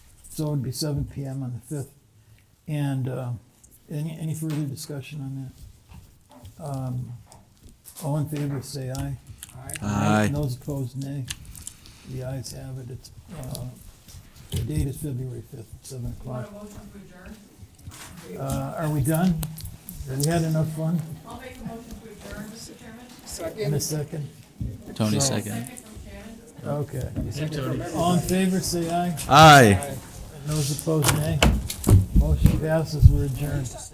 so it'd be seven PM on the fifth. And, uh, any, any further discussion on that? Um, All in favor, say aye. Aye. And Those opposed, nay. The ayes have it, it's, uh, the date is February fifth, seven You want o'clock. a motion to adjourn? Uh, are we done? Have we had enough fun I'll make a motion to adjourn, Mr. Chairman. in a second? Tony So- second. Second from Shannon. Okay. All in favor, say aye. Aye. And Those opposed, nay. Motion passes, we're adjourned.